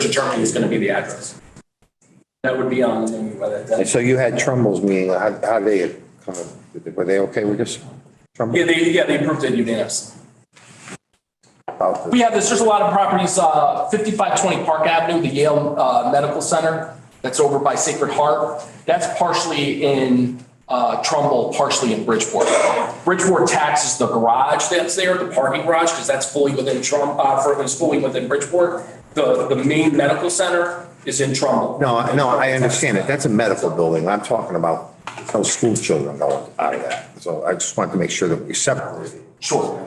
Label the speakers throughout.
Speaker 1: determining is gonna be the address. That would be on the, whether
Speaker 2: And
Speaker 1: that,
Speaker 2: so you had Trumbull's meeting, how, how they, come up- were they okay with this? Trumbull?
Speaker 1: yeah, they, yeah, they approved it unanimously.
Speaker 2: About the-
Speaker 1: We have this, there's a lot of properties, uh, 5520 Park Avenue, the Yale uh, Medical Center, that's over by Sacred Heart. That's partially in uh, Trumbull, partially in Bridgeport. Bridgeport taxes the garage that's there, the parking garage, because that's fully within Trump, uh, for- is fully within Bridgeport. The, the main medical center is in Trumbull.
Speaker 2: No, I- no, I understand it. That's a medical building. I'm talking about no school children going out of that. So I just wanted to make sure that we separate.
Speaker 1: Sure.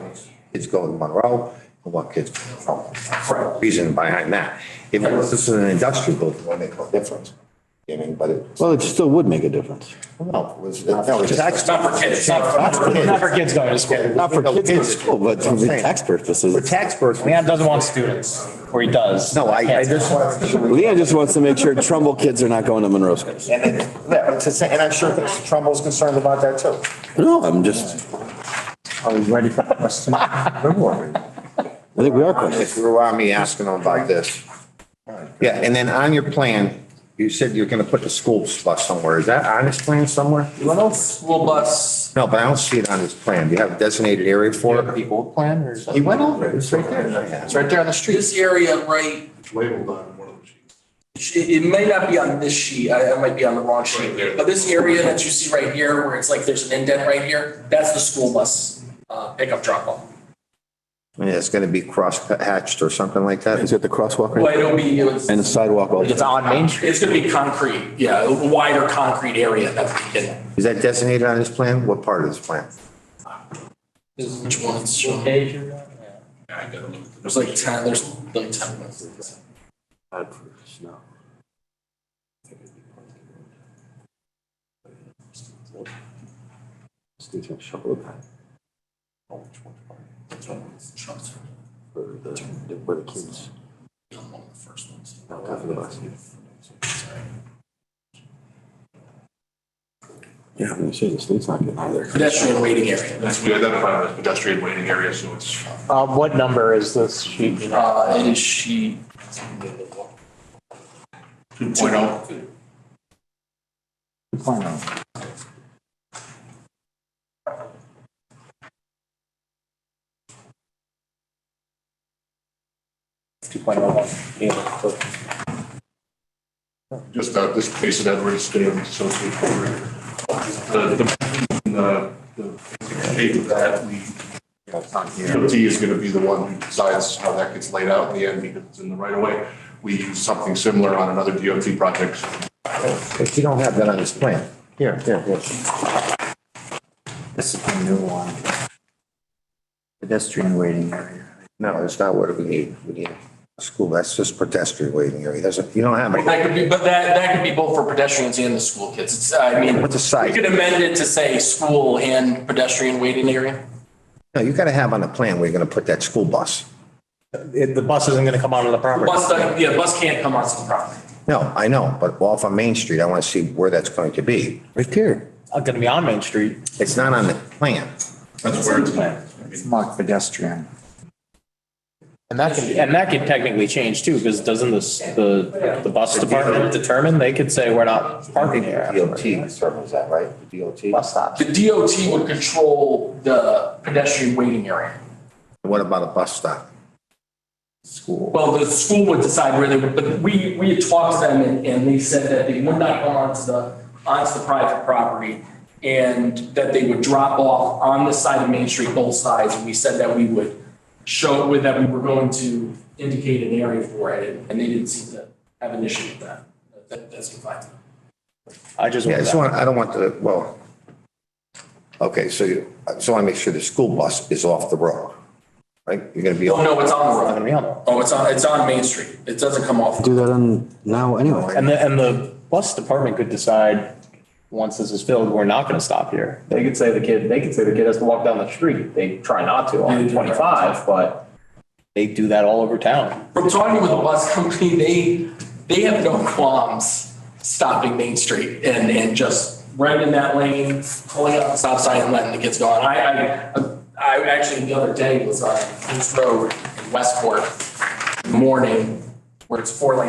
Speaker 2: Kids go to Monroe and what kids go to Trumbull. That's the
Speaker 1: Right.
Speaker 2: Reason behind that. If it was- this is an industrial building, it would make no difference. I mean, but it,
Speaker 3: Well, it still would make a difference.
Speaker 2: no, it was, that was
Speaker 1: It's not for kids, it's not for.
Speaker 4: Not for kids going to school.
Speaker 3: Not for kids in school, but for
Speaker 2: I'm saying.
Speaker 3: tax
Speaker 2: For
Speaker 3: purposes.
Speaker 2: tax purposes.
Speaker 4: Leon doesn't want students, or he does.
Speaker 2: No, I, I just want to.
Speaker 3: Leon just wants to make sure Trumbull kids are not going to Monroe schools.
Speaker 2: And it- yeah, but to say- and I'm sure Mr. Trumbull's concerned about that too.
Speaker 3: No, I'm just,
Speaker 5: Are we ready for questions?
Speaker 3: I think we are questioning.
Speaker 2: If you were on me asking him about this. Yeah, and then on your plan, you said you're gonna put the school bus somewhere. Is that on his plan somewhere?
Speaker 1: School bus,
Speaker 2: No, but I don't see it on his plan. Do you have a designated area for it?
Speaker 5: The old plan or?
Speaker 2: He went over it. It's right there.
Speaker 5: It's right there on the street.
Speaker 1: this area right
Speaker 6: labeled on one of the sheets.
Speaker 1: It, it may not be on this sheet, I, I might be on the wrong sheet, but this area that you see right here, where it's like there's an indent right here, that's the school bus, uh, pickup drop off.
Speaker 2: I mean, it's gonna be cross hatched or something like
Speaker 3: Is
Speaker 2: that.
Speaker 3: it the crosswalk
Speaker 1: Well,
Speaker 3: right-
Speaker 1: it'll be, it's,
Speaker 3: and the sidewalk? all-
Speaker 4: It's on Main Street.
Speaker 1: it's gonna be concrete, yeah, a wider concrete area that we can.
Speaker 2: Is that designated on his plan? What part of his plan?
Speaker 1: This is which one it's showing. There's like ten, there's like ten. minutes.
Speaker 3: Yeah, I'm gonna say the state's not getting out of there.
Speaker 1: Pedestrian waiting area,
Speaker 6: That's, we identified it as pedestrian waiting area, so it's.
Speaker 4: Uh, what number is this sheet?
Speaker 1: uh, it is sheet.
Speaker 6: Two point oh. Just about this place that Edward stands, so it's over. Uh, The, the, the basic shape of that, we, DOT is gonna be the one who decides how that gets laid out in the end, because it's in the right of way. We use something similar on another DOT project,
Speaker 2: If you don't have that on his plan. Here, here, here.
Speaker 5: This is the new one. Pedestrian waiting area.
Speaker 2: No, it's not what we need. We need a school. That's just pedestrian waiting area. Doesn't, you don't have it.
Speaker 1: That could be, but that, that could be both for pedestrians and the school kids, it's, I mean.
Speaker 2: What's the size?
Speaker 1: We could amend it to say school and pedestrian waiting area.
Speaker 2: No, you gotta have on the plan where you're gonna put that school bus.
Speaker 4: The bus isn't gonna come onto the property.
Speaker 1: Bus, doesn't- yeah, bus can't come onto the property.
Speaker 2: No, I know, but off on Main Street, I wanna see where that's going to be.
Speaker 3: Right here.
Speaker 4: It's gonna be on Main Street.
Speaker 2: It's not on the plan.
Speaker 6: that's where it's.
Speaker 5: It's marked pedestrian.
Speaker 4: And that can, and that could technically change too, because doesn't this, the, the bus department determine? They could say we're not parking here.
Speaker 2: DOT determines that, right? DOT.
Speaker 4: Bus stops.
Speaker 1: The DOT would control the pedestrian waiting area.
Speaker 2: What about a bus stop?
Speaker 1: Well, the school would decide where they would, but we, we had talked to them and, and they said that they would not go onto the, onto the private property and that they would drop off on the side of Main Street, both sides. And we said that we would show with that we were going to indicate an area for it and- and they didn't seem to have an issue with that. That- That's fine.
Speaker 4: I just
Speaker 2: Yeah, I
Speaker 4: want
Speaker 2: just
Speaker 4: that.
Speaker 2: want, I don't want the, well, okay, so you, so I make sure the school bus is off the road, right? You're gonna be.
Speaker 1: Oh, no, it's on
Speaker 4: It's
Speaker 1: the
Speaker 4: gonna
Speaker 1: road.
Speaker 4: be on there.
Speaker 1: Oh, it's on, it's on Main Street. It doesn't come off.
Speaker 3: Do that on now anyway.
Speaker 4: And the, and the bus department could decide, once this is filled, we're not gonna stop here. They could say the kid, they could say the kid has to walk down the street. They try not to on twenty-five, but they do that all over town.
Speaker 1: From talking with the bus company, they, they have no qualms stopping Main Street and, and just right in that lane, pulling up the stop sign and letting the kids go on. I, I, I actually, the other day was on East Road in Westport in the morning, where it's four lane